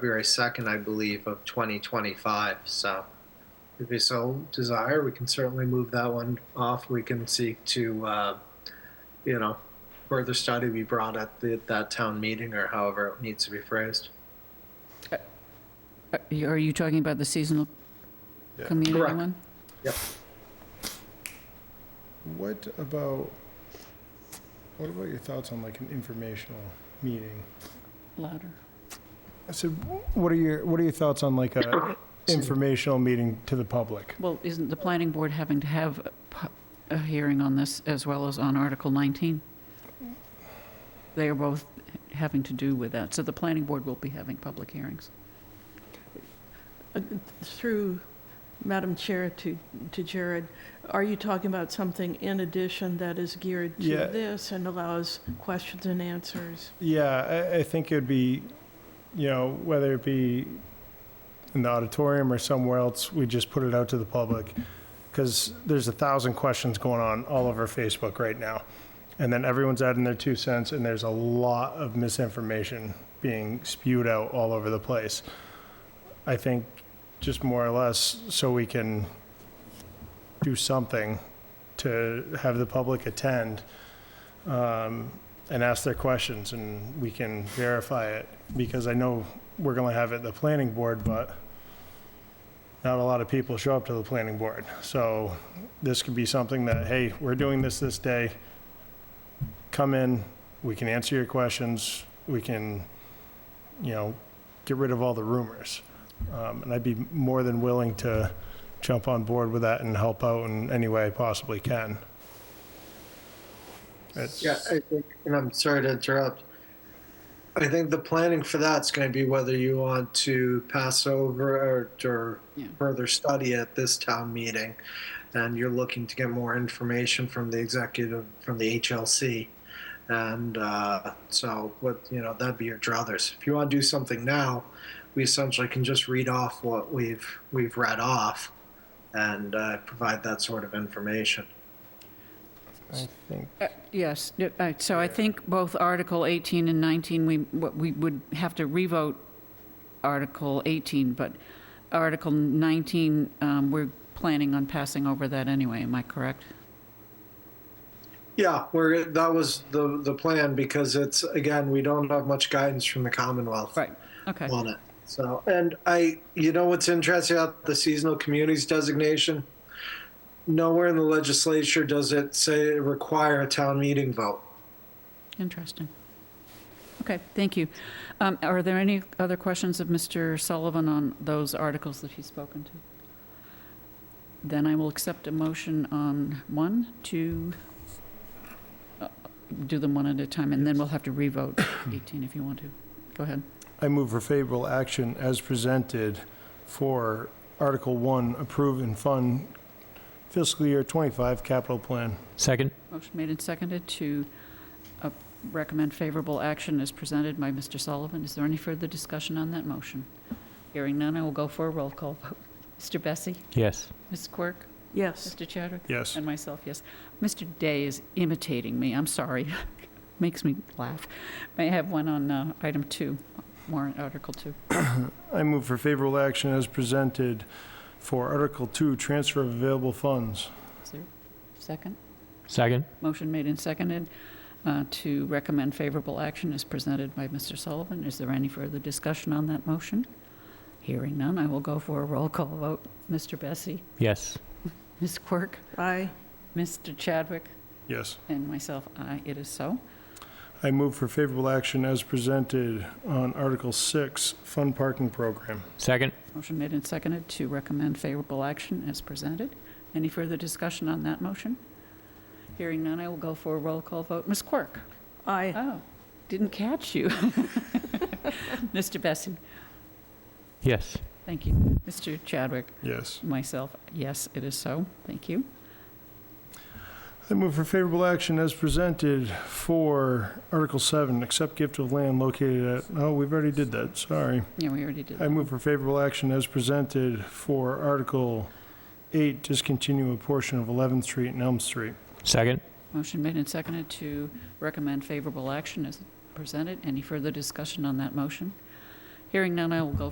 February 2nd, I believe, of 2025. So if we so desire, we can certainly move that one off. We can seek to, uh, you know, further study be brought at the, that town meeting or however it needs to be phrased. Are you- Uh, are you talking about the seasonal Yeah. community Correct. one? What about, what about your thoughts on like an informational meeting? Louder. I said, wh- what are your, what are your thoughts on like a informational meeting to the public? Well, isn't the planning board having to have a pu- a hearing on this as well as on Article 19? They are both having to do with that, so the planning board will be having public hearings. Through Madam Chair to, to Jared, are you talking about something in addition that is geared to Yeah. this and allows questions and answers? Yeah, I, I think it'd be, you know, whether it be in the auditorium or somewhere else, we just put it out to the public. Because there's a thousand questions going on all over Facebook right now. And then everyone's adding their two cents, and there's a lot of misinformation being spewed out all over the place. I think just more or less so we can do something to have the public attend. Um, and ask their questions and we can verify it because I know we're gonna have it at the planning board, but not a lot of people show up to the planning board. So this could be something that, hey, we're doing this this day. Come in, we can answer your questions, we can, you know, get rid of all the rumors. Um, and I'd be more than willing to jump on board with that and help out in any way I possibly can. It's- Yeah, I think, and I'm sorry to interrupt. I think the planning for that's going to be whether you want to pass over or, or Yeah. further study at this town meeting, and you're looking to get more information from the executive from the HLC, and uh, so what you know that'd be your druthers. If you want to do something now, we essentially can just read off what we've we've read off, and uh, provide that sort of information. I think Uh, Yes, no, uh, so I think both Article 18 and 19, we, what we would have to revote Article 18, but Article 19, um, we're planning on passing over that anyway, am I correct? Yeah, we're, that was the, the plan because it's, again, we don't have much guidance from the Commonwealth Right, okay. on it. So, and I, you know what's interesting about the seasonal communities designation? Nowhere in the legislature does it say require a town meeting vote. Interesting. Okay, thank you. Um, Are there any other questions of Mr. Sullivan on those articles that he's spoken to? Then I will accept a motion on one, two, uh, do them one at a time, and then we'll have to revote 18 if you want to. Go ahead. I move for favorable action as presented for Article 1, approve and fund fiscal year 25 capital plan. Second? Motion made and seconded to uh, recommend favorable action as presented by Mr. Sullivan. Is there any further discussion on that motion? Hearing none, I will go for a roll call vote. Mr. Bessie? Yes. Ms. Quirk? Yes, Mr. Chadwick? Yes. And myself, yes. Mr. Day is imitating me, I'm sorry. Makes me laugh. May I have one on uh, item two, warrant article two? I move for favorable action as presented for Article 2, transfer of available funds. Is there a second? Second? Motion made and seconded uh, to recommend favorable action is presented by Mr. Sullivan. Is there any further discussion on that motion? Hearing none, I will go for a roll call vote. Mr. Bessie? Yes. Ms. Quirk? aye, Mr. Chadwick? Yes. And myself, aye, it is so. I move for favorable action as presented on Article 6, fund parking program. Second? Motion made and seconded to recommend favorable action as presented. Any further discussion on that motion? Hearing none, I will go for a roll call vote. Ms. Quirk? aye, Oh, didn't catch you. Mr. Bessie? Yes. Thank you. Mr. Chadwick? Yes. Myself, yes, it is so. Thank you. I move for favorable action as presented for Article 7, accept gift of land located at, oh, we've already did that, sorry. Yeah, we already did I that. move for favorable action as presented for Article 8, discontinue a portion of 11th Street and Elm Street. Second? Motion made and seconded to recommend favorable action as presented. Any further discussion on that motion? Hearing none, I will go